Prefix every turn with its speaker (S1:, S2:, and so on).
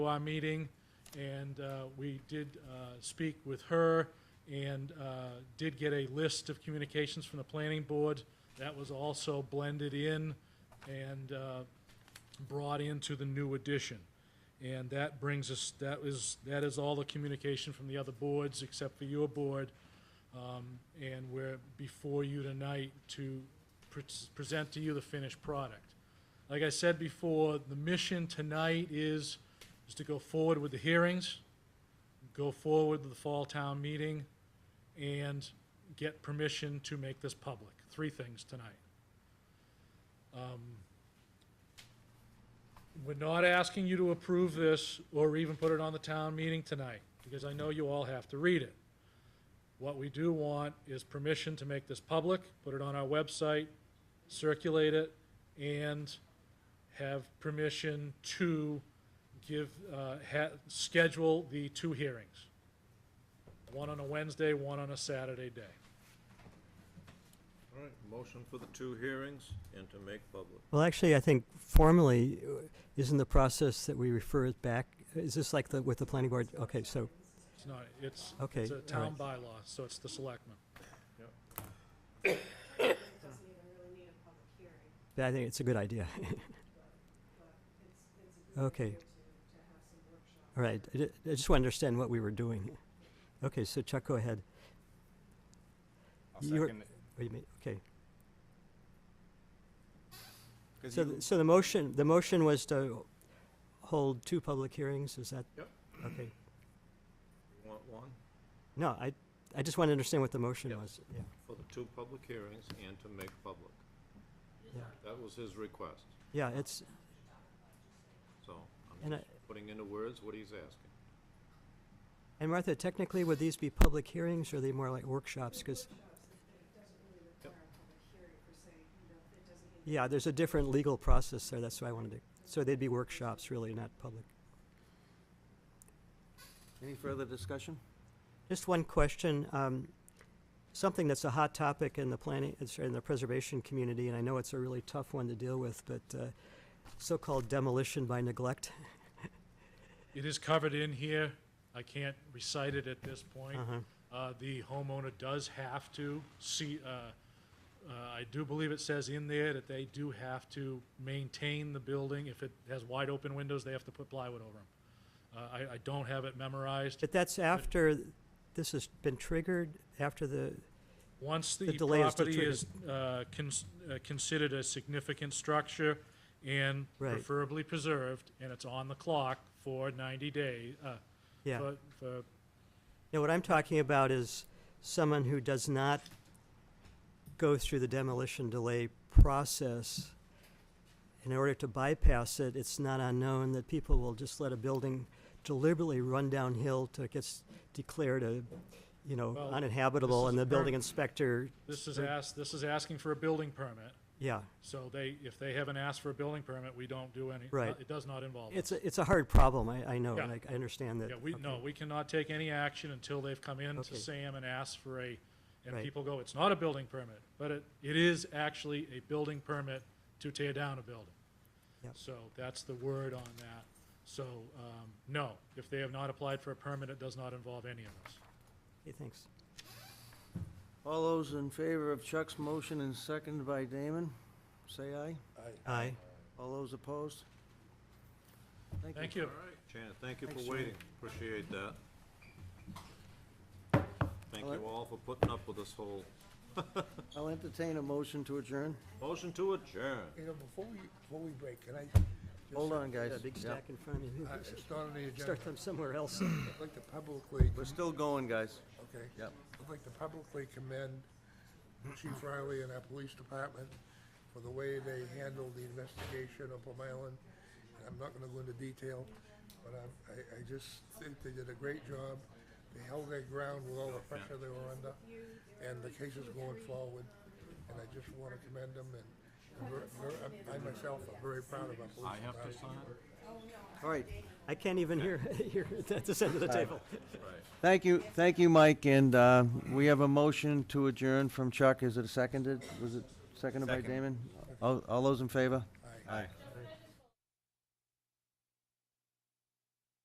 S1: our meeting, and uh, we did uh, speak with her and uh, did get a list of communications from the planning board. That was also blended in and uh, brought into the new edition. And that brings us, that is, that is all the communication from the other boards except for your board. Um, And we're before you tonight to pre- present to you the finished product. Like I said before, the mission tonight is, is to go forward with the hearings, go forward with the fall town meeting, and get permission to make this public. Three things tonight. Um, We're not asking you to approve this or even put it on the town meeting tonight, because I know you all have to read it. What we do want is permission to make this public, put it on our website, circulate it, and have permission to give, uh, ha, schedule the two hearings. One on a Wednesday, one on a Saturday day.
S2: All right, motion for the two hearings and to make public.
S3: Well, actually, I think formally, uh, isn't the process that we refer it back, uh, is this like the, with the planning board? Okay, so,
S1: It's not, it's,
S3: Okay,
S1: it's a
S3: all
S1: town bylaw, so it's the selectmen.
S4: doesn't even really need a public hearing,
S3: yeah, I think it's a good idea.
S4: but it's, it's a good
S3: Okay,
S4: idea to, to have some workshops.
S3: all right. I ju- I just want to understand what we were doing. Okay, so Chuck, go ahead.
S5: I'll
S3: You're-
S5: second it.
S3: What do you mean? Okay.
S5: 'Cause
S3: So,
S5: you-
S3: th- so the motion, the motion was to hold two public hearings, is that?
S2: Yep.
S3: Okay.
S2: You want one
S3: No, I, I just want to understand what the motion
S2: Yep.
S3: was, yeah.
S2: for the two public hearings and to make public.
S3: Yeah.
S2: That was his request,
S3: Yeah, it's,
S2: so I'm
S3: And
S2: just putting into words what he's asking.
S3: and Martha, technically, would these be public hearings, or are they more like workshops? Because
S4: Workshops, it, it doesn't really require a public hearing per se, you know, it doesn't even.
S3: Yeah, there's a different legal process there, that's why I wanted to, so they'd be workshops really, not public.
S6: Any further discussion?
S3: Just one question, um, something that's a hot topic in the planning, uh, sorry, in the preservation community, and I know it's a really tough one to deal with, but, uh, so-called demolition by neglect.
S1: It is covered in here. I can't recite it at this point.
S3: Uh-huh.
S1: Uh, the homeowner does have to see, uh, uh, I do believe it says in there that they do have to maintain the building. If it has wide open windows, they have to put plywood over them. Uh, I, I don't have it memorized.
S3: But that's after this has been triggered, after the,
S1: Once the
S3: The delay is still
S1: property is, uh, cons- uh, considered a significant structure and
S3: Right.
S1: preferably preserved, and it's on the clock for ninety days, uh,
S3: yeah.
S1: for, for
S3: Now, what I'm talking about is someone who does not go through the demolition delay process. In order to bypass it, it's not unknown that people will just let a building deliberately run downhill till it gets declared a, you know,
S1: Well,
S3: uninhabitable,
S1: this
S3: and
S1: is
S3: the building
S1: current-
S3: inspector,
S1: This is
S3: Right.
S1: asked, this is asking for a building permit,
S3: yeah.
S1: so they, if they haven't asked for a building permit, we don't do any.
S3: Right.
S1: It does not involve us.
S3: It's a, it's a hard problem, I, I know, and
S1: Yeah.
S3: I, I understand that.
S1: Yeah, we,
S3: Okay.
S1: no, we cannot take any action until they've come in to
S3: Okay.
S1: Sam and asked for a, and
S3: Right.
S1: people go, it's not a building permit, but it, it is actually a building permit to tear down a building.
S3: Yep.
S1: So that's the word on that. So, um, no, if they have not applied for a permit, it does not involve any of us.
S3: Okay, thanks.
S6: All those in favor of Chuck's motion and seconded by Damon, say aye.
S3: Aye.
S6: All those opposed?
S1: Thank you.
S2: All right, Shannon, thank you
S6: Thanks,
S2: for
S6: Shannon.
S2: waiting. Appreciate that. Thank
S6: Well,
S2: you all for putting up with this whole
S6: I'll entertain a motion to adjourn.
S2: motion to adjourn.
S7: You know, before we, before we break, can I? just-
S6: Hold on, guys.
S3: Got a big
S6: Yeah.
S3: stack in front of you.
S1: Uh,
S7: I- It's not on the agenda.
S3: Start them somewhere else.
S7: I'd like to publicly,
S6: We're still going, guys.
S7: okay.
S6: Yep.
S7: I'd like to publicly commend Chief Riley and our police department for the way they handled the investigation of Plum Island. And I'm not gonna go into detail, but I'm- I, I just think they did a great job. They held their ground with all the pressure they were under, and the case is going forward. And I just wanna commend them, and I'm ver- ver- I'm- I myself am very proud of our police
S2: I
S7: department.
S2: have to sign it?
S6: All right.
S3: I can't even hear, hear at this end of the table.
S2: Right.
S6: Thank you, thank you, Mike, and uh, we have a motion to adjourn from Chuck. Is it seconded? Was it seconded by
S5: Second.
S6: Damon? All all those in favor?
S7: Aye.
S2: Aye.